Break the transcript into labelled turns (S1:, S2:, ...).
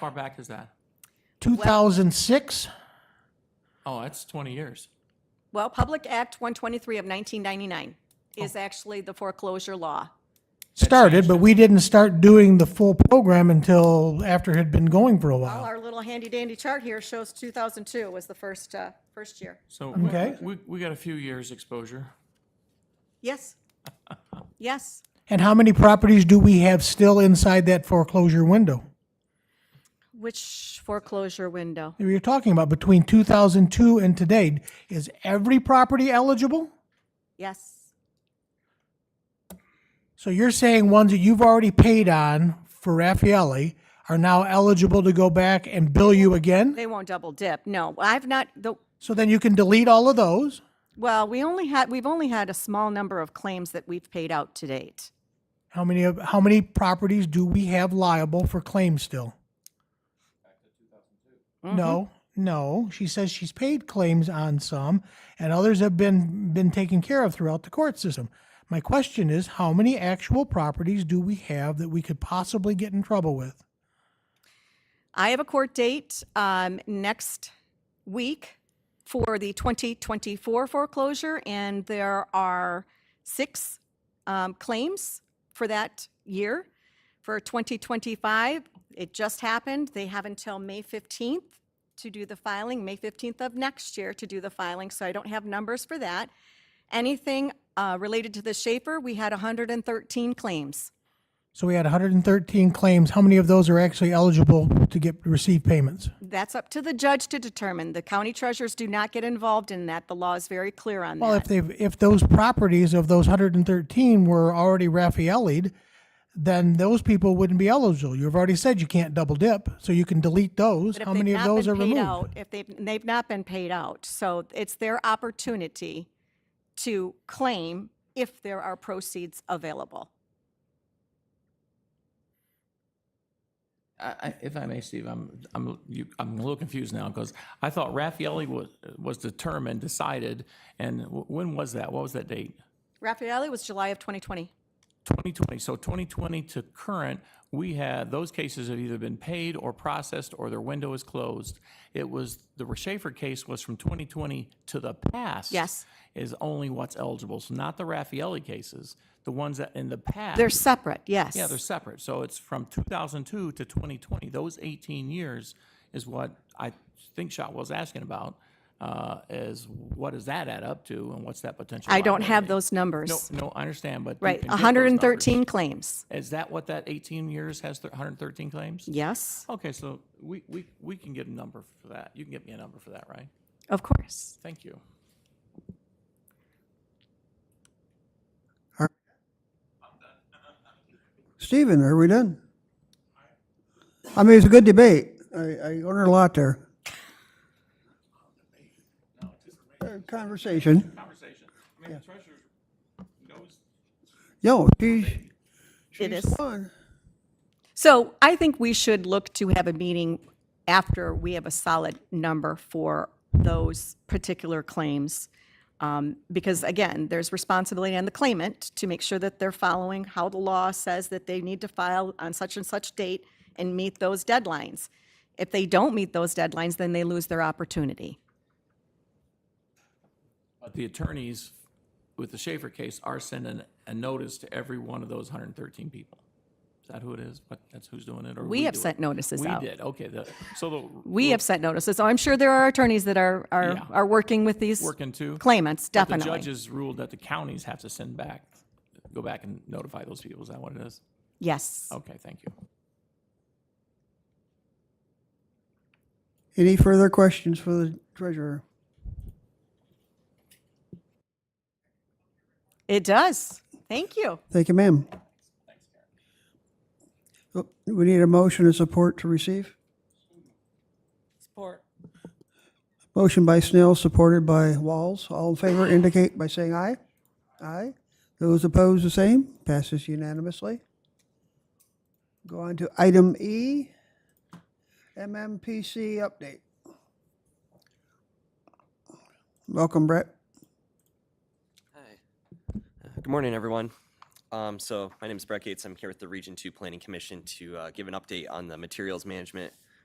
S1: far back is that?
S2: 2006?
S1: Oh, that's 20 years.
S3: Well, Public Act 123 of 1999 is actually the foreclosure law.
S2: Started, but we didn't start doing the full program until after it had been going for a
S3: Well,
S2: while.
S3: our little handy dandy chart here shows 2002 was the first, uh, first year.
S1: So we-
S2: Okay.
S1: we, we got a few years exposure.
S3: Yes. Yes.
S2: And how many properties do we have still inside that foreclosure window?
S3: Which foreclosure window?
S2: You're talking about between 2002 and today. Is every property eligible?
S3: Yes.
S2: So you're saying ones that you've already paid on for Raffaelli are now eligible to go back and bill you again?
S3: They won't double dip. No, I've not, the,
S2: So then you can delete all of those?
S3: well, we only had, we've only had a small number of claims that we've paid out to date.
S2: How many, of how many properties do we have liable for claims still? No,
S3: Mm-hmm.
S2: no. She says she's paid claims on some, and others have been been taken care of throughout the court system. My question is, how many actual properties do we have that we could possibly get in trouble with?
S3: I have a court date um, next week for the 2024 foreclosure, and there are six um, claims for that year. For 2025, it just happened. They have until May 15th to do the filing, May 15th of next year to do the filing, so I don't have numbers for that. Anything uh, related to the Schaefer, we had 113 claims.
S2: So we had 113 claims. How many of those are actually eligible to get receive payments?
S3: That's up to the judge to determine. The county treasurers do not get involved in that. The law is very clear on
S2: Well,
S3: that.
S2: if they if those properties of those 113 were already Raffaelli'd, then those people wouldn't be eligible. You've already said you can't double dip, so you can delete those.
S3: But if
S2: How
S3: they've
S2: many of
S3: not
S2: those
S3: been
S2: are
S3: paid
S2: removed?
S3: out- If they've, they've not been paid out, so it's their opportunity to claim if there are proceeds available.
S1: I, I, if I may, Steve, I'm, I'm, you, I'm a little confused now because I thought Raffaelli was, was determined, decided, and w- when was that? What was that date?
S3: Raffaelli was July of 2020.
S1: 2020. So 2020 to current, we had, those cases have either been paid or processed or their window is closed. It was, the Schaefer case was from 2020 to the past.
S3: Yes.
S1: Is only what's eligible. So not the Raffaelli cases, the ones that in the past.
S3: They're separate, yes.
S1: Yeah, they're separate. So it's from 2002 to 2020. Those 18 years is what I think Shot was asking about, uh, is what does that add up to and what's that potential?
S3: I don't have
S1: liability?
S3: those numbers.
S1: No, no, I understand, but. you
S3: Right,
S1: can get those numbers.
S3: 113 claims.
S1: Is that what that 18 years has, th- 113 claims?
S3: Yes,
S1: Okay, so we, we, we can get a number for that. You can get me a number for that, right?
S3: of course.
S1: Thank you.
S4: Stephen, are we done? I mean, it's a good debate. I, I learned a lot there. Uh, Conversation.
S1: Conversation. I mean, the treasurer knows
S4: No, she's,
S3: It
S4: she's
S3: is.
S4: fun.
S3: So I think we should look to have a meeting after we have a solid number for those particular claims. Um, Because again, there's responsibility on the claimant to make sure that they're following how the law says that they need to file on such and such date and meet those deadlines. If they don't meet those deadlines, then they lose their opportunity.
S1: But the attorneys with the Schaefer case are sending a notice to every one of those 113 people. Is that who it is? What, that's who's doing it, or
S3: We have
S1: do it?
S3: sent notices
S1: We
S3: out.
S1: did, okay, the, so the,
S3: We have sent notices. So I'm sure there are attorneys that are, are,
S1: Yeah.
S3: are working with these
S1: working too?
S3: claimants,
S1: But The
S3: definitely.
S1: judges ruled that the counties have to send back, go back and notify those people, is that what it is?
S3: Yes.
S1: Okay, thank you.
S4: Any further questions for the treasurer?
S3: It does. Thank you.
S4: Thank you, ma'am. Oh, We need a motion and support to receive.
S5: Support.
S4: Motion by Snell, supported by Walls. All in favor indicate by saying aye. Aye. Those opposed, the same. Passes unanimously. Go on to item E, MMPC update. Welcome, Brett.
S6: Uh, Good morning, everyone. Um, so my name is Brett Gates. I'm here with the Region Two Planning Commission to uh, give an update on the materials management